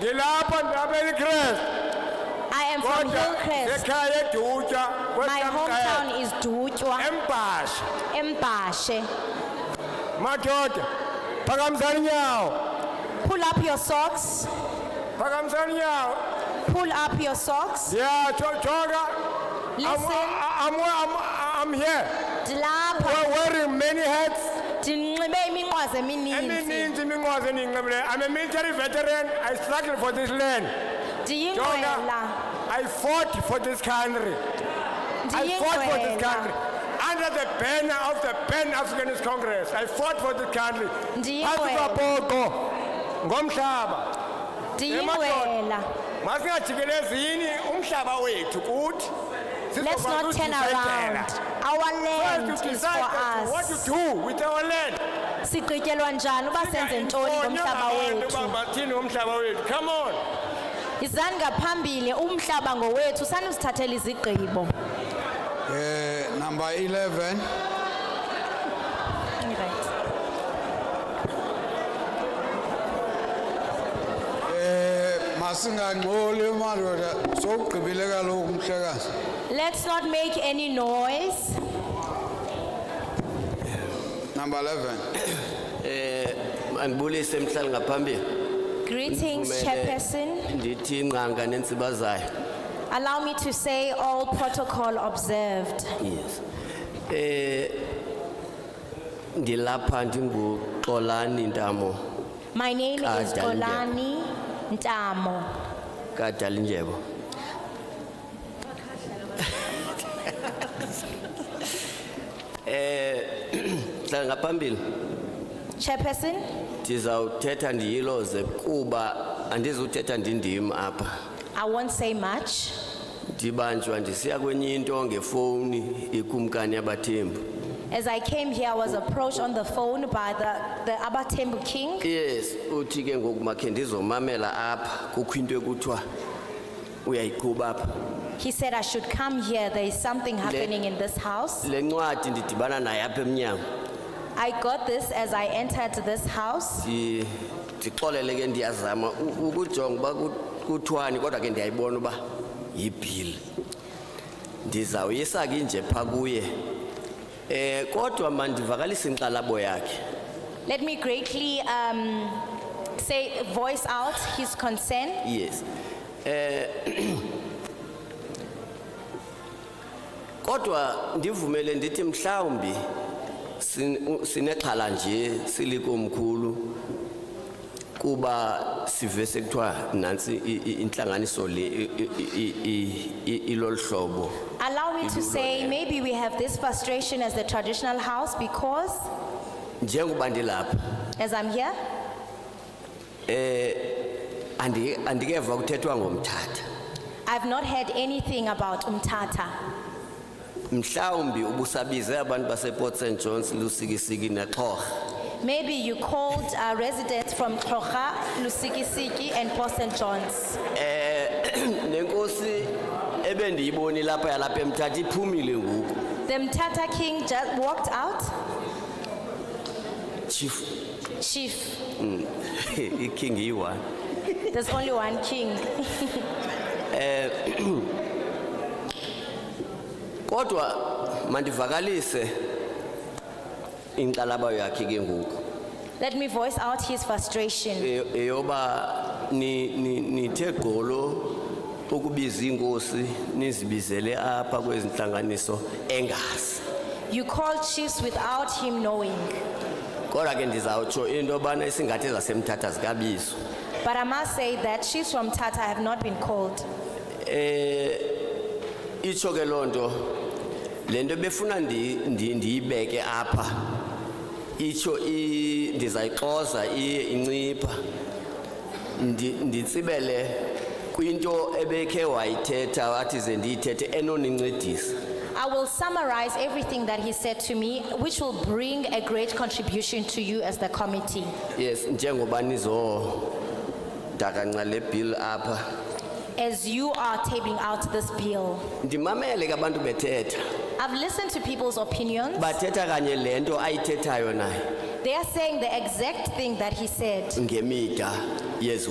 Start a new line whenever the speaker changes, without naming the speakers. ngilapha ndihambela ikrest
I am from
kodwa
Hillcrest.
ekhaya edutsha
My
kwekamqele
hometown is Dutwa,
embhasha
Mbashe.
madoda phakamisani inyawo
Pull up your socks.
phakamisani inyawo
Pull up your socks.
ndiyatsho joka I'm,
Listen.
I'm, I'm, I'm here
Dilapha
We're wearing many hats
ndinxibe iminqwazi emininzi.
emininzi iminqwazi endiyinxibileyo i'm a military veteran i struggled for this land
Ndiyingqwela.
I fought for this country. I fought for this country.
Ndiyingqwela.
Under the banner of the Pan Africanist Congress, I fought for this country. Phantsi
Ndiyingqwela.
kwabhoqo ngomhlaba.
Ndiyingqwela.
Masingajikelezini umhlaba wethu kuthi.
Let's not turn around. Our
First
land
to
is for
decide as to what
us.
to do with our land.
Sigqityelwa njani uba senze ntoni ngomhlaba
Inkonya abantu
wethu?
uba bathini ngomhlaba wethu. Come on.
Yizani ngaphambili umhlaba ngowethu sanusithathela izigqibo.
Eh, number 11
Right.
masingangxoli madoda sowugqibile kaloku umhlekazi
Let's not make any noise.
number 11
andibulise mhlali ngaphambili
Greetings,
Ndivumele
Chairperson.
ndithi ingqanga nentsiba zayo
Allow me to say all protocol observed.
yes eh ndilapha ndinguxolani ntamo
My name is
Kajalindyebo.
Olani Ntamo.
kadalindyebo eh mhlali ngaphambili
Chairperson,
ndizawuthetha ndiyiloze kuba andizuthetha ndindim apha
I won't say much.
ndibanjwa ndisiya kwenye into ngefowuni ikumkani abathembu
As I came here, I was approached on the phone by the, the Abatembu King.
yes uthi ke ngoku makhe ndizomamela apha kukho into ekuthiwa uyayiqhuba apha
He said I should come here. There is something happening in this house.
le ncwadi ndidibana naye apha emnyango
I got this as I entered this house.
Ndi- ndixolele ke ndiyazama u- ukujonga uba ku- kuthwani kodwa ke ndiyayibona uba yibhili ndizawuyisa ke nje phaa kuye um kodwa mandivakalise inkxalabo yakhe
Let me greatly um, say, voice out his concern.
yes eh kodwa ndivumele ndithi mhlawumbi sin- u- sinexhala nje silikomkhulu kuba sive sekuthiwa nantsi i- i- intlanganiso le i- i- i- i- i- ilolu hlobo
Allow me to say, maybe we have this frustration as the traditional house because,
njengoba ndilapha
as I'm here,
andi- andikeva kuthethwa ngomthatha
I've not heard anything about Umtata.
mhlawumbi ubusabize abantu baseport st johns lusikisiki nexhorha
Maybe you called uh, residents from Krocha, Lusikisiki, and Port St. John's.
nenkosi ebendiyiboni lapha yalapha emthatha iphumile ngoku
The Mtata King just walked out.
chief
Chief,
iking iyi-one
there's only one king.
kodwa mandivakalise inkxalaba yakhe ke ngoku
Let me voice out his frustration.
E- eyoba ni- ni- nithe gqolo ukubiza iinkosi nizibizele apha kwezi ntlanganiso engazi
You called chiefs without him knowing.
kodwa ke ndizawutsho into yobana isingathi zasemthatha zikabizo
But I must say that chiefs from Tata have not been called.
eh itsho ke lonto lento befuna ndi ndi- ndiyibeke apha itsho i- ndizayixoza iye incipha Ndi- nditsibele kwinto ebekhe wayithetha wathi ze ndiyithethe enonincedisa
I will summarize everything that he said to me, which will bring a great contribution to you as the committee.
yes njengoba nizo dakanca le bill apha
As you are tabling out this bill,
ndimamele ke abantu bethetha
I've listened to people's opinions.
bathetha kanye le nto ayithethayo naye
They are saying the exact thing that he said.
ngemida yezi